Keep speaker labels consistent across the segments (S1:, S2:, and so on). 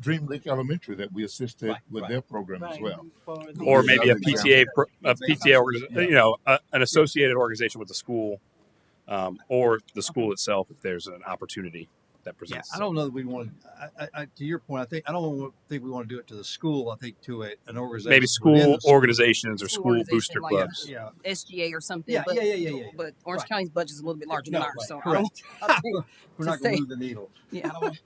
S1: Dream Lake Elementary that we assisted
S2: Right,
S1: with
S2: right.
S1: their program as
S2: Right.
S1: well.
S2: For the-
S1: Yeah,
S3: or
S4: uh,
S3: maybe a
S1: other example.
S3: PTA, pro- a
S2: Example.
S3: PTA, organi-
S1: Yeah.
S3: you know, a, an associated organization with the school, um, or the school itself if there's an opportunity that
S2: Yeah,
S3: presents.
S2: I
S3: itself.
S2: don't know that we want, I, I, I, to your point, I think, I don't wa- think we want to do it to the school. I think to a, an organization.
S3: Maybe
S2: within
S3: school
S2: the
S3: organizations or
S4: School
S3: school
S4: organization
S3: booster
S4: like
S3: clubs.
S2: Yeah,
S4: SGA or something.
S2: Yeah,
S4: but,
S2: yeah, yeah, yeah, yeah, yeah.
S4: But Orange
S2: Right.
S4: County's budget's a little bit larger
S2: No,
S4: than ours,
S2: right,
S4: so I
S2: correct.
S4: don't, I don't,
S2: we're
S4: to
S2: not going
S4: say-
S2: to move the needle.
S4: yeah, I don't,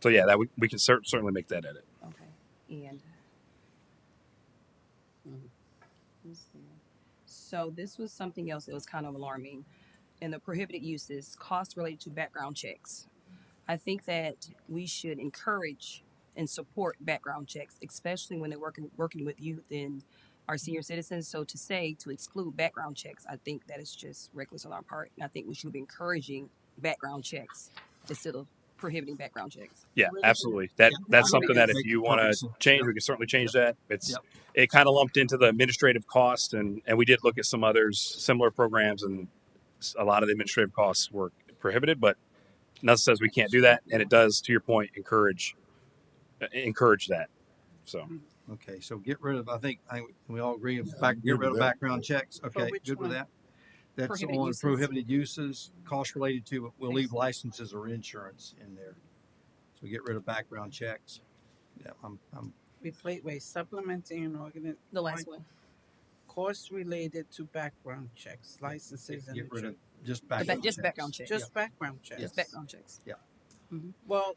S3: So yeah, that we, we can cer- certainly make that edit.
S4: okay, and. mm, who's there? So this was something else that was kind of alarming. In the prohibited uses, costs related to background checks. I think that we should encourage and support background checks, especially when they're working, working with youth and our senior citizens. So to say, to exclude background checks, I think that is just reckless on our part. And I think we should be encouraging background checks instead of prohibiting background checks.
S3: Yeah,
S2: Well,
S3: absolutely. That
S2: yeah,
S3: that's
S2: I think
S3: something that
S2: it's
S3: if
S2: like
S3: you want
S2: perfect
S3: to
S2: sense.
S3: change,
S2: Yep.
S3: we can certainly change that. It's
S2: Yep.
S3: it kind of lumped into the administrative cost, and and we did look at some others similar programs, and s- a lot of the administrative costs were prohibited, but nothing says we can't do that, and it does. To your point, encourage uh, encourage that. So
S2: Okay, so get rid of, I think, I, think we all agree,
S1: Yeah, I
S2: back,
S1: agree
S2: get
S1: with
S2: rid of
S1: that.
S2: background checks, okay,
S4: which
S2: good with
S4: one?
S2: that. That's
S4: Prohibited
S2: on
S4: uses.
S2: prohibited uses, cost related to, but we'll leave
S4: Excellent.
S2: licenses or insurance in there. So get rid of background checks. Yeah, I'm, I'm,
S5: Wait, wait, wait, supplementing and organ,
S4: The last one,
S5: costs related to background checks, licenses and.
S2: get rid of
S5: insurance.
S2: just
S4: ba-
S2: background.
S4: just
S2: checks.
S4: background check.
S5: Just background checks.
S4: just background checks.
S5: Well,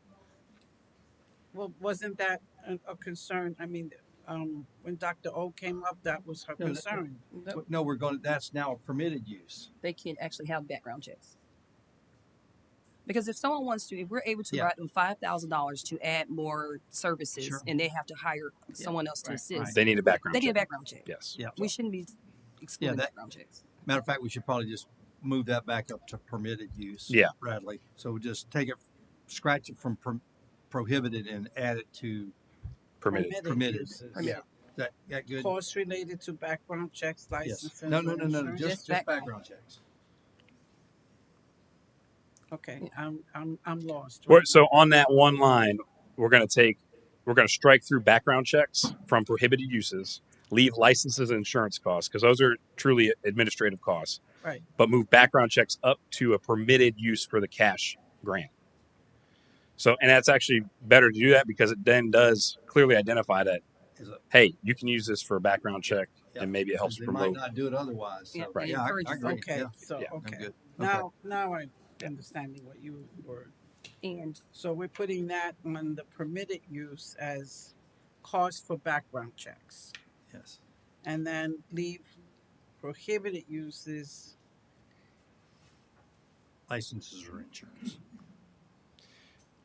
S5: well, wasn't that a, a concern? I mean, um, when Dr. O came up, that was her
S2: No, that-
S5: concern.
S4: Nope.
S2: But No, we're going, to that's now a permitted use.
S4: they can actually have background checks. Because if someone wants to, if we're able to
S2: Yeah.
S4: write them five thousand dollars to add more services,
S2: Sure.
S4: and they have to hire someone else to
S2: right,
S4: assist,
S3: they need a background.
S4: they get a
S3: check.
S4: background check.
S3: Yes.
S2: Yeah.
S4: We shouldn't be excluding
S2: that-
S4: background checks.
S2: Matter of fact, we should probably just move that back up to permitted use.
S3: Yeah.
S2: Bradley. So we'll just take it, scratch it from pro- prohibited and add it to,
S3: Permitted.
S2: Permitted.
S5: uses.
S2: yeah, that, that good?
S5: Costs related to background checks,
S2: Yes.
S5: licenses.
S2: No, no,
S5: and
S2: no, no, no,
S5: insurance?
S2: just,
S4: Just
S2: just
S4: background.
S2: background checks.
S5: Okay, I'm, I'm, I'm lost.
S3: We're- so on that one line, we're going to take, we're going to strike through background checks from prohibited uses, leave licenses and insurance costs because those are truly administrative costs.
S5: Right.
S3: But move background checks up to a permitted use for the cash grant. So, and that's actually better to do that because it then does clearly identify that,
S2: Is it-
S3: hey, you can use this for a background check,
S2: Yeah.
S3: and maybe it helps
S2: They might
S3: promote.
S2: not do it otherwise, so.
S4: Yeah,
S3: Right.
S4: it
S2: Yeah, I- I
S4: encourages
S2: agree.
S4: that.
S5: Okay,
S2: Yeah.
S5: so,
S3: Yeah.
S2: I'm
S5: okay.
S2: good.
S5: Now, now I understand what you were
S4: And
S5: So we're putting that on the permitted use as cost for background checks.
S2: Yes.
S5: And then leave prohibited uses,
S2: Licenses or insurance.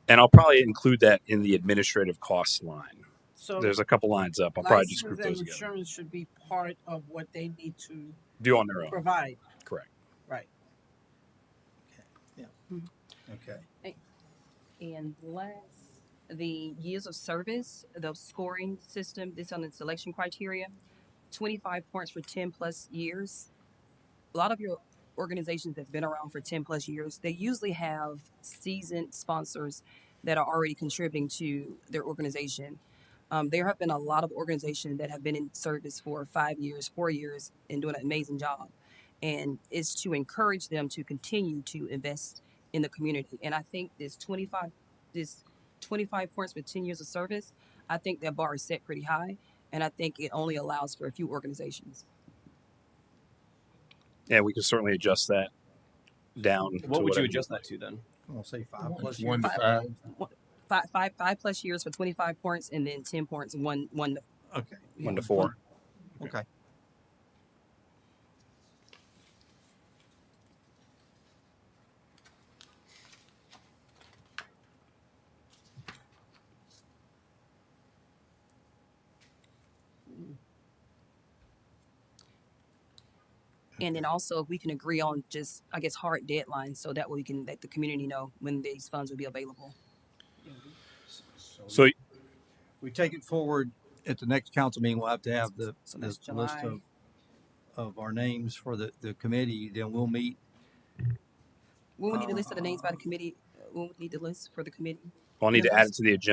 S3: And I'll probably include that in the administrative costs line.
S5: so.
S3: There's a couple lines up. I'll probably just
S5: license
S3: group
S5: and
S3: those together.
S5: Insurance should be part of what they need to
S3: Do on their own.
S5: provide,
S3: Correct.
S5: right?
S2: Okay.
S4: and last, the years of service, the scoring system, this on the selection criteria, twenty-five points for ten plus years. A lot of your organizations that's been around for ten plus years, they usually have seasoned sponsors that are already contributing to their organization. Um, there have been a lot of organizations that have been in service for five years, four years, and doing an amazing job. And it's to encourage them to continue to invest in the community. And I think this twenty-five, this twenty-five points for ten years of service, I think that bar is set pretty high, and I think it only allows for a few organizations.
S3: Yeah, we can certainly adjust that down. to
S6: What would
S3: whatever-
S6: you adjust that to then?
S2: I'm gonna say five plus. years.
S1: One to five.
S4: Five, five, five plus years for twenty-five points, and then ten points, one, one.
S2: Okay.
S3: One to four.
S2: Okay.
S4: And then also, if we can agree on just, I guess, hard deadlines, so that way we can let the community know when these funds will be available.
S3: So
S2: We take it forward at the next council meeting, we'll have to have the,
S4: So
S2: this
S4: that's
S2: list
S4: July.
S2: of, of our names for the, the committee, then we'll meet.
S4: uh, We would need a list of the names by the committee, we would need the list for the committee.
S3: I'll need to add
S4: Members?
S3: it to the agenda.